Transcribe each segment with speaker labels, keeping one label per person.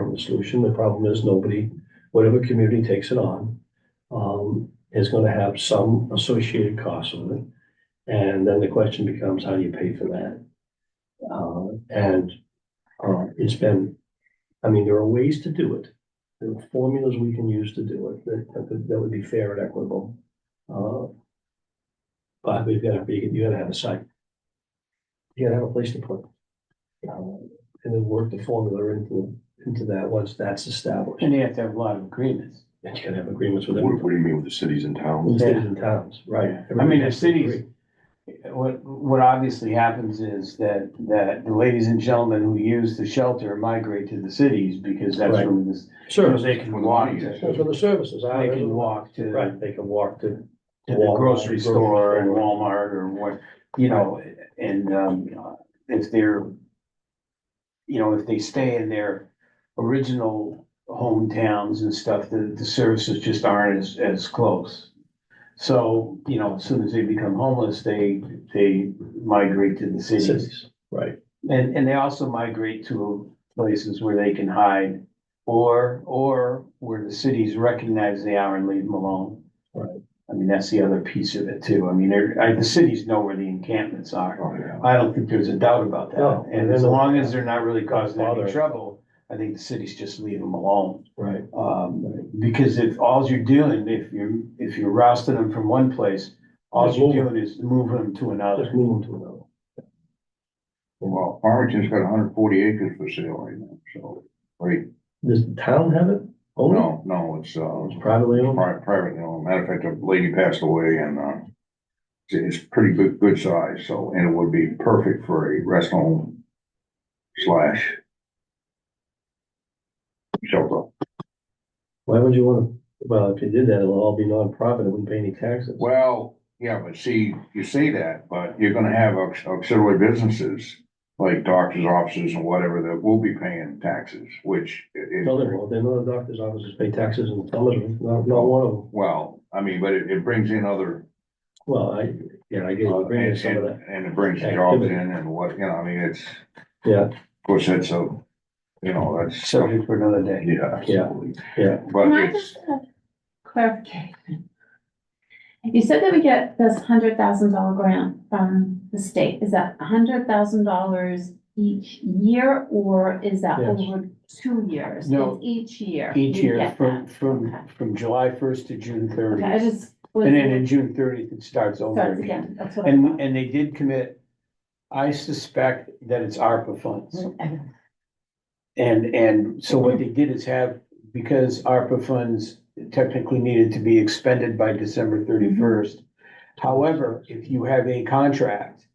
Speaker 1: from the solution. The problem is nobody, whatever community takes it on, um, is gonna have some associated costs with it. And then the question becomes, how do you pay for that? Uh, and, uh, it's been, I mean, there are ways to do it. There are formulas we can use to do it that, that, that would be fair and equitable. Uh, But we've gotta be, you gotta have a site. You gotta have a place to put. it. Uh, And then work the formula into, into that once that's established.
Speaker 2: And you have to have a lot of agreements.
Speaker 1: And you gotta have agreements with
Speaker 3: What,
Speaker 1: everyone,
Speaker 3: what do you mean with the cities and
Speaker 1: with
Speaker 3: towns?
Speaker 1: the cities and towns, right?
Speaker 2: Yeah. I
Speaker 1: Everybody
Speaker 2: mean, the
Speaker 1: has to agree.
Speaker 2: cities- What, what obviously happens is that, that the ladies and gentlemen who use the shelter migrate to the cities because that's
Speaker 1: Right.
Speaker 2: where this,
Speaker 1: Services.
Speaker 2: they
Speaker 3: Where
Speaker 2: can
Speaker 3: the
Speaker 2: walk
Speaker 3: money
Speaker 2: to.
Speaker 3: is.
Speaker 1: That's where the services are.
Speaker 2: They can walk to,
Speaker 1: Right,
Speaker 2: to
Speaker 1: they can walk to.
Speaker 2: the
Speaker 1: Walmart,
Speaker 2: grocery store and Walmart or what, you know, and, um, if they're, you know, if they stay in their original hometowns and stuff, the, the services just aren't as, as close. So, you know, as soon as they become homeless, they, they migrate to the cities.
Speaker 1: Cities, right,
Speaker 2: And, and they also migrate to places where they can hide or, or where the cities recognize they are and leave them alone.
Speaker 1: Right.
Speaker 2: I mean, that's the other piece of it too. I mean, there, I, the cities know where the encampments are.
Speaker 3: Oh, yeah.
Speaker 2: I don't think there's a doubt about
Speaker 1: No,
Speaker 2: that. And
Speaker 1: they
Speaker 2: as
Speaker 1: don't-
Speaker 2: long as they're not really causing
Speaker 1: Bother.
Speaker 2: any trouble, I think the cities just leave them alone.
Speaker 1: right.
Speaker 2: Um, because if all you're doing, if you're, if you're rousting them from one place, all
Speaker 1: Just
Speaker 2: you're
Speaker 1: move 'em.
Speaker 2: doing is moving them to
Speaker 1: Just
Speaker 2: another.
Speaker 1: move them to another.
Speaker 3: Well, Farmington's got hundred and forty acres for sale right now, so, right,
Speaker 1: Does the town have it? Own it?
Speaker 3: no, no, it's, uh,
Speaker 1: It's privately owned?
Speaker 3: pri- private, you know, matter of fact, a lady passed away and, uh, it's, it's pretty good, good size, so, and it would be perfect for a rest home slash shelter.
Speaker 1: Why would you wanna, well, if you did that, it'll all be nonprofit, it wouldn't pay any taxes.
Speaker 3: Well, yeah, but see, you say that, but you're gonna have aux- auxiliary businesses, like doctor's offices and whatever, that will be paying taxes, which i- is.
Speaker 1: No, they won't, they know the doctor's offices pay taxes and Summersby, not, not one of them.
Speaker 3: Well, I mean, but it, it brings in other,
Speaker 1: Well, I, yeah, I get
Speaker 3: uh,
Speaker 1: you,
Speaker 3: and,
Speaker 1: bringing some of
Speaker 3: and
Speaker 1: that,
Speaker 3: and it brings jobs in
Speaker 1: activity.
Speaker 3: and what, you know, I mean, it's,
Speaker 1: yeah,
Speaker 3: of course, that's a, you know, that's.
Speaker 2: Subject for another day.
Speaker 3: Yeah, absolutely.
Speaker 1: yeah.
Speaker 3: But
Speaker 4: Can I
Speaker 3: it's,
Speaker 4: just have clarification? You said that we get this hundred thousand dollar grant from the state. Is that hundred thousand dollars each year or is that
Speaker 1: Yes.
Speaker 4: over two years?
Speaker 2: No.
Speaker 4: It's Each year.
Speaker 2: Each
Speaker 4: you
Speaker 2: year
Speaker 4: get
Speaker 2: from,
Speaker 4: that.
Speaker 2: from,
Speaker 4: Okay.
Speaker 2: from July first to June
Speaker 4: Okay, I
Speaker 2: thirtieth.
Speaker 4: just. was-
Speaker 2: And then in June thirtieth, it starts over
Speaker 4: Starts
Speaker 2: again.
Speaker 4: again, that's what I
Speaker 2: And,
Speaker 4: thought.
Speaker 2: and they did commit, I suspect that it's ARPA funds.
Speaker 4: Okay.
Speaker 2: And, and so what they did is have, because ARPA funds technically needed to be expended by December thirty-first. However, if you have a contract,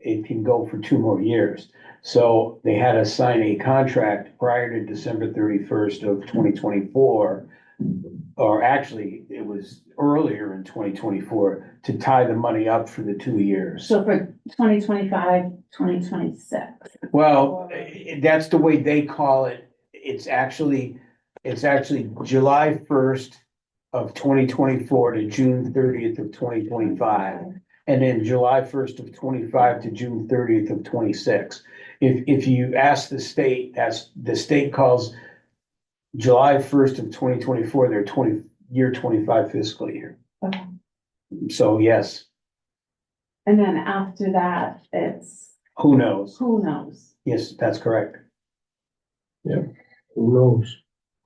Speaker 2: it can go for two more years. So they had us sign a contract prior to December thirty-first of twenty twenty-four. Or actually, it was earlier in twenty twenty-four to tie the money up for the two years.
Speaker 4: So for 2025, 2026.
Speaker 2: Well, eh, that's the way they call it. It's actually, it's actually July first of twenty twenty-four to June thirtieth of twenty twenty-five. And then July first of twenty-five to June thirtieth of twenty-six. If, if you ask the state, that's, the state calls July first of twenty twenty-four, their twenty, year twenty-five fiscal year.
Speaker 4: Okay.
Speaker 2: So yes,
Speaker 4: And then after that, it's,
Speaker 2: who knows?
Speaker 4: who knows?
Speaker 2: Yes, that's correct.
Speaker 1: Who knows?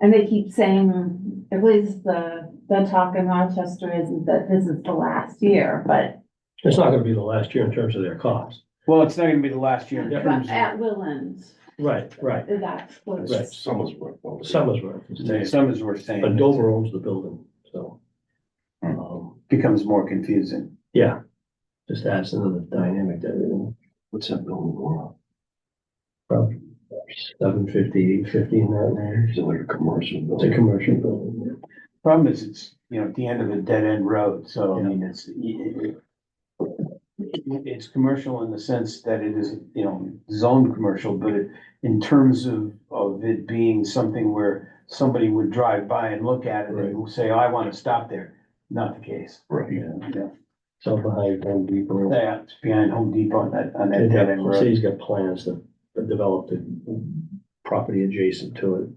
Speaker 4: And they keep saying, at least the, the talk in Rochester isn't that this is the last year, but
Speaker 1: It's not gonna be the last year in terms of their cost.
Speaker 2: Well, it's not gonna be the last year in
Speaker 1: Yeah.
Speaker 2: terms
Speaker 4: but
Speaker 2: of.
Speaker 4: at Willand,
Speaker 1: Right, right.
Speaker 4: that's what.
Speaker 1: Right.
Speaker 3: Summersworth. though.
Speaker 1: Summersworth, is
Speaker 2: Yeah,
Speaker 1: next.
Speaker 2: Some is worth saying.
Speaker 1: but Dover owns the building, so.
Speaker 3: Hmm.
Speaker 1: um,
Speaker 2: Becomes more confusing.
Speaker 1: Yeah, just adds another dynamic to everything. What's that building going on? Probably seven fifty, eight fifty in that range.
Speaker 3: It's like a commercial
Speaker 1: It's a commercial building.
Speaker 2: Problem is, it's, you know, at the end of a dead end road, so I
Speaker 1: Yeah.
Speaker 2: mean, it's. it- it- It's commercial in the sense that it is, you know, zone commercial, but it- in terms of, of it being something where somebody would drive by and look at it and say, oh, I want to stop there. Not the case.
Speaker 3: Right.
Speaker 1: Yeah,
Speaker 2: Yeah,
Speaker 1: so behind Home Depot.
Speaker 2: that's behind Home Depot on that, on that
Speaker 1: They'd
Speaker 2: dead
Speaker 1: have-
Speaker 2: end
Speaker 1: The
Speaker 2: road.
Speaker 1: city's got plans to develop the property adjacent to it.